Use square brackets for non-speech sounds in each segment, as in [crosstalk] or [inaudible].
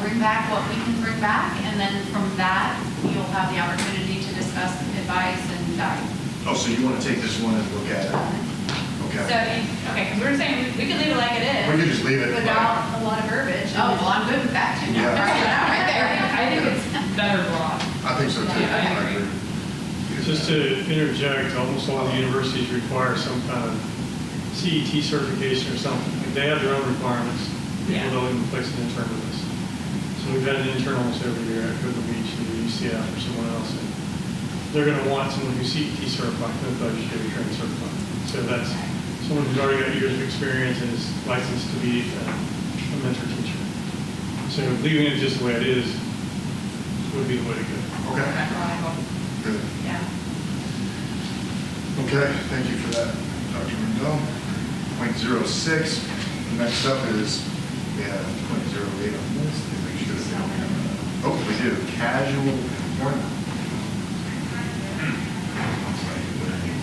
bring back what we can bring back, and then from that, you'll have the opportunity to discuss advice and guidance. Oh, so you want to take this one and look at it? So, Okay. you- okay, 'cause we we're saying, we could leave it like it is. We could just leave it. Without a lot of verbiage. Oh, well, I'm good with that too. [laughs] Yeah. Right there. I think it's better law. I think so too. Yeah, I agree. Just to interject, almost all the universities require some kind of CET certification or something. Like, They have their own requirements. Yeah. People don't even place an intern with us. So we've had an intern almost every year at Cocoa Beach and UCF or someone else. and They're going to want someone who's CET certified, not budgetary trained certified. So that's someone who's already got years of experience and is licensed to be uh, a mentor teacher. So leaving it just the way it is would be the way to go. Okay, good. Yeah. Okay, thank you for that, Dr. Rendell. Point zero six, next up is, we have point zero eight on this, make sure that we have- oh, we do, casual employment. Hmm.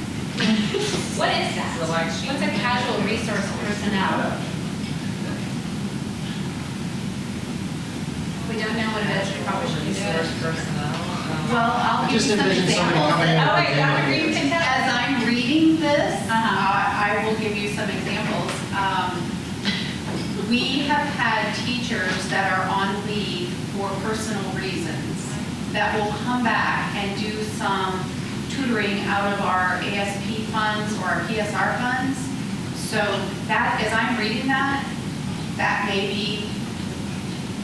What is that? What's a casual resource personnel? We don't know what it is, we probably should do it. Well, I'll give Just you some envision someone examples. coming in. Oh, wait, Dr. Green can tell. As I'm reading this, I I will give you some examples. Um, We have had teachers that are on leave for personal reasons that will come back and do some tutoring out of our ASP funds or our PSR funds. So that, as I'm reading that, that may be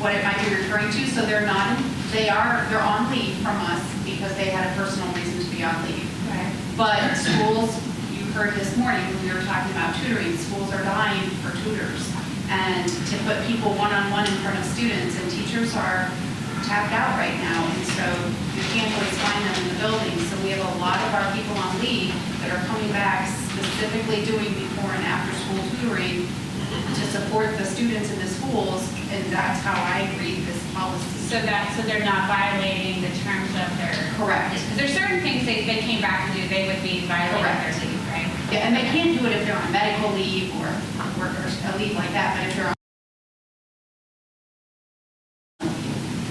what it might be referring to, so they're not, they are, they're on leave from us because they had a personal reason to be on leave. Right. But schools, you heard this morning, when we were talking about tutoring, schools are dying for tutors. And to put people one-on-one in front of students, and teachers are tapped out right now, and so you can't always find them in the building. So we have a lot of our people on leave that are coming back specifically doing before and after-school tutoring to support the students in the schools, and that's how I read this policy. So that, so they're not violating the terms of their. Correct. Because there's certain things they, they came back to do, they would be violating their Correct. leave, right? Yeah, and they can do it if they're on medical leave or workers, a leave like that, but if they're on.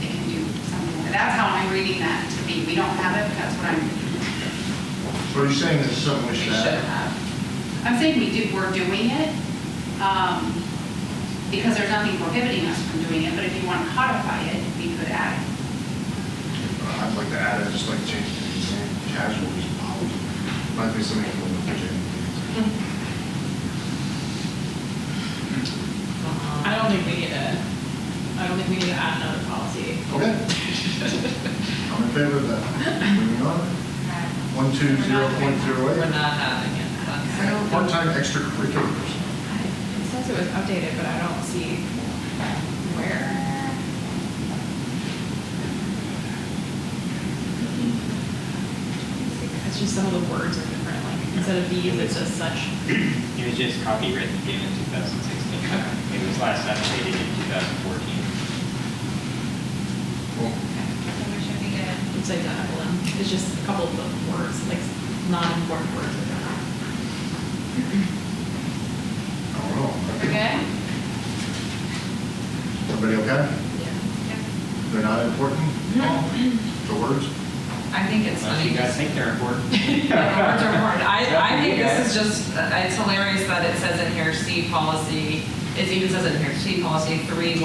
They can do something, like that. that's how I'm reading that to be, we don't have it, that's what I'm, So are you saying this is something we We should should add? have. I'm saying we do, we're doing it, um, because there's nothing prohibiting us from doing it, but if you want to codify it, we could add it. I'd like to add, I'd just like to change the name, casual is policy. Might be something from Virginia. I don't think we need to, I don't think we need to add another policy. Okay. I'm in favor of that. Moving on. One two zero point zero We're eight. not having it. That's- Part-time extracurriculars. It says it was updated, but I don't see where. It's just some of the words are different, like instead of these, it's just such. It was just copyrighted again in 2016. It was last updated in 2014. Well, So we should be good. It's identical, and it's just a couple of the words, like non-important words. are different. I don't know. We're good? Everybody okay? They're not important? The words? I think it's Unless funny. you because- guys think they're important. [laughs] Words are important. I, I Yeah, think you this is guys. just, it's hilarious that it says in here, C policy, it even says in here, C policy 3120.03,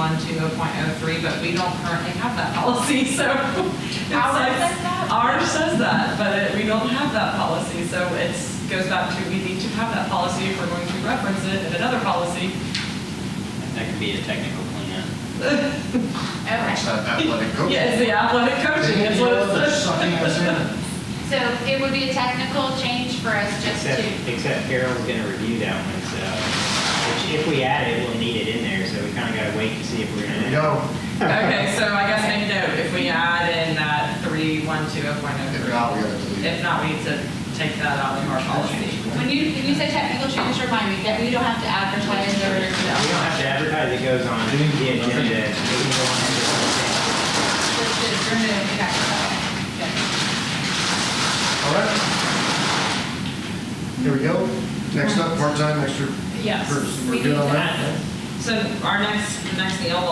but we don't currently have that policy, [laughs] so. Ours it's- says that? Ours says that, but it- we don't have that policy, so it's, goes back to, we need to have that policy if we're going to reference it in another policy. That could be a technical cleanup. Okay. It's not athletic coach. Yeah, it's the athletic coaching, it's what it They're says. sucking us in. So it would be a technical change for us just Except, to, except Carol's going to review that one, so, which if we add it, we'll need it in there, so we kind of got to wait to see if we're going Here to. we go. Okay, so I guess make note, if we add in that oh, If 3120.03. not, we gotta delete If it. not, we need to take that out of our policy. when you, when you say technical change, remind me that we don't have to advertise or. We don't have to advertise, it goes on the agenda. It can go on every- All right. Here we go. Next up, part-time extra. Yes, person. We're we good need on to that? add it. So our next, next deal will